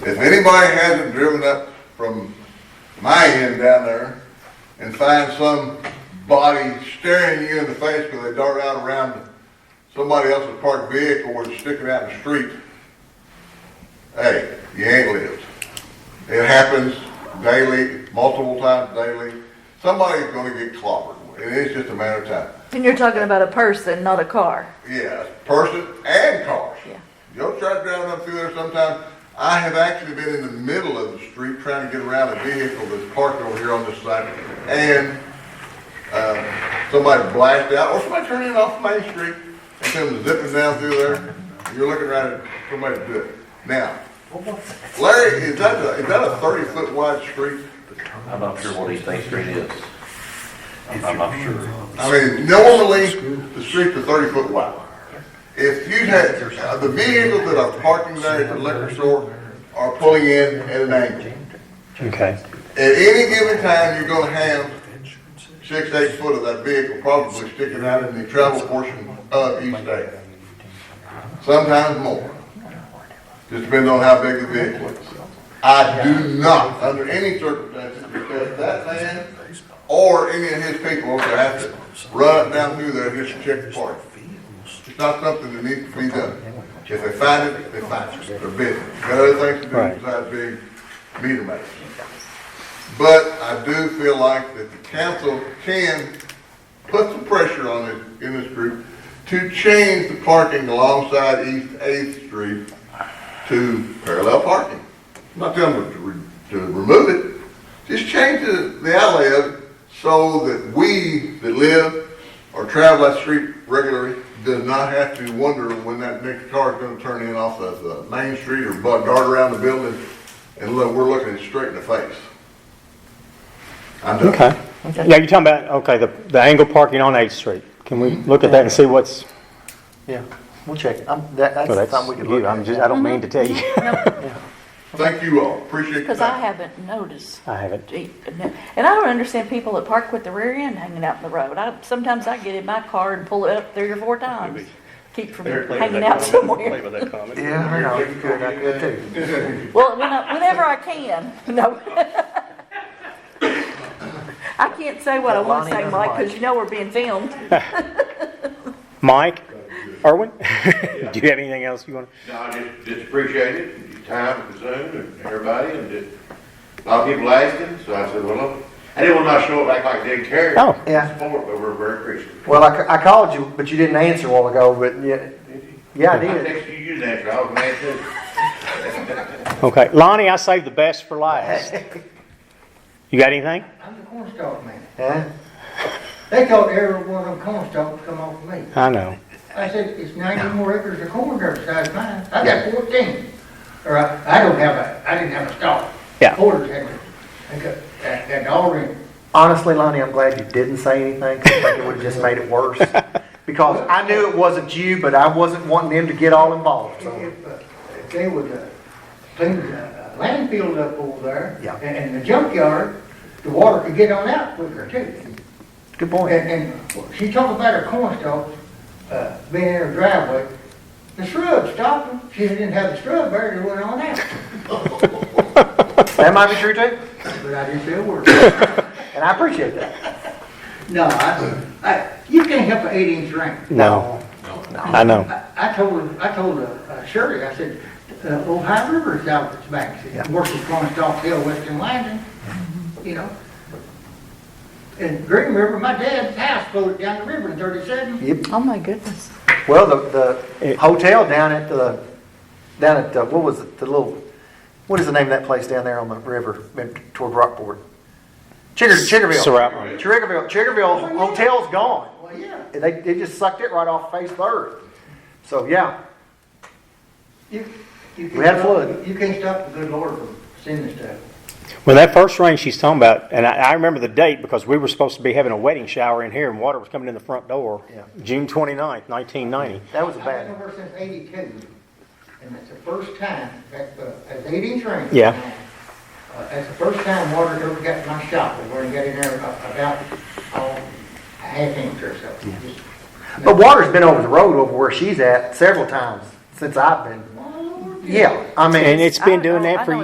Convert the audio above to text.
If anybody hasn't driven up from my end down there and find some body staring you in the face because they dart out around somebody else's parked vehicle or sticking out in the street, hey, you ain't lived. It happens daily, multiple times daily. Somebody's gonna get clobbered. It is just a matter of time. And you're talking about a person, not a car. Yes, person and cars. Yeah. You'll try driving up through there sometime. I have actually been in the middle of the street trying to get around a vehicle that's parked over here on this side. And, um, somebody blasted out, or somebody turning off Main Street and comes zipping down through there. You're looking right at somebody to do it. Now, Larry, is that a, is that a thirty foot wide street? I'm not sure what East Main Street is. I'm I'm not sure. I mean, normally, the streets are thirty foot wide. If you had, uh, the vehicles that are parking there at the liquor store are pulling in at an angle. Okay. At any given time, you're gonna have six, eight foot of that vehicle probably sticking out in the travel portion of each day. Sometimes more. Just depends on how big the vehicle is. I do not, under any circumstances, because that man or any of his people will have to run up down through there just to check the park. It's not something that needs to be done. If they find it, they find it, they're busy. Got other things to do Right. besides being meter maid. But I do feel like that the council can put some pressure on it in this group to change the parking alongside East Eighth Street to parallel parking. I'm not telling them to, re- to remove it, just change the, the alley of it so that we that live or travel that street regularly does not have to wonder when that next car is gonna turn in off of, uh, Main Street or bug dart around the building and look, we're looking it straight in the face. I'm done. Okay. Yeah, you're talking about, okay, the, the angle parking on Eighth Street. Can we look at that and see what's, Yeah, we'll check it. I'm, that, well, that's that's something we could look you, at. I'm just, I don't mean to tell you. Thank you all, appreciate your Because I time. haven't noticed. I haven't. And I don't understand people that park with the rear end hanging out in the road. I, sometimes I get in my car and pull it up three or four times. Keep from hanging out somewhere. Yeah, I know, you could, I could too. Well, when I- whenever I can, no. I can't say what I want to say, Mike, because you know we're being filmed. Mike, Erwin, do you have anything else you want? No, I just, just appreciate it, your time consumed, and everybody, and just, a lot of people asking, so I said, well, look, I didn't want to show it like I didn't care. Oh. Yeah. Support, but we're very appreciative. Well, I, ca- I called you, but you didn't answer a while ago, but yeah, yeah, I I did. texted you, you didn't answer, I was mad too. to? Okay, Lonnie, I saved the best for last. You got anything? I'm the cornstalk man. Yeah, They thought every one of them cornstalks come off of me. I know. I said, it's ninety more acres of corn dirt besides mine. I Yeah. got fourteen. Or I, I don't have a, I didn't have a stalk. Yeah. Quarters had me. I got, that, that all in. honestly, Lonnie, I'm glad you didn't say anything, 'cause I think it would've just made it worse. Because I knew it wasn't you, but I wasn't wanting them to get all involved, so. If, uh, if they would, uh, clean the uh, landfill up over there. Yeah. And, and the junkyard, the water could get on out quicker too. Good point. And, and she talked about her cornstalk, uh, being in her driveway. The shrub stopped her. She didn't have the shrub buried, it went on out. That might be true too, But I didn't say a word. and I appreciate that. No, I, I, you can't help an eight inch ring. Uh, No, I know. I, I told, I told uh, uh, Shirley, I said, uh, Ohio River's out its banks, Yeah. it washes Cornstalk Hill, Western Landing, you know? And Green River, my dad's house floated down the river in thirty-seven. Yep. Oh, my goodness. Well, the, the It- hotel down at the, down at, uh, what was it, the little, what is the name of that place down there on the river in- toward Rockport? Chigger, Chiggerville. Surratt. Chiggerville, Chiggerville Hotel's gone. Well, yeah, They, they just sucked it right off face of the earth. So, yeah, you, you. We had can't- flood. You can't stop the good Lord from sending stuff. When that first rain she's talking about, and I, I remember the date because we were supposed to be having a wedding shower in here and water was coming in the front door. Yeah. June 29th, 1990. that was a I've been bad, over since eighty-two, and that's the first time, that, uh, as eight inch rain. Yeah. Uh, That's the first time water ever got in my shop, and we're getting there a- about, oh, a half inch or so. Just- but water's been over the road over where she's at several times since I've been. Lord, Yeah, I mean. And it's been I don't doing know. I that for know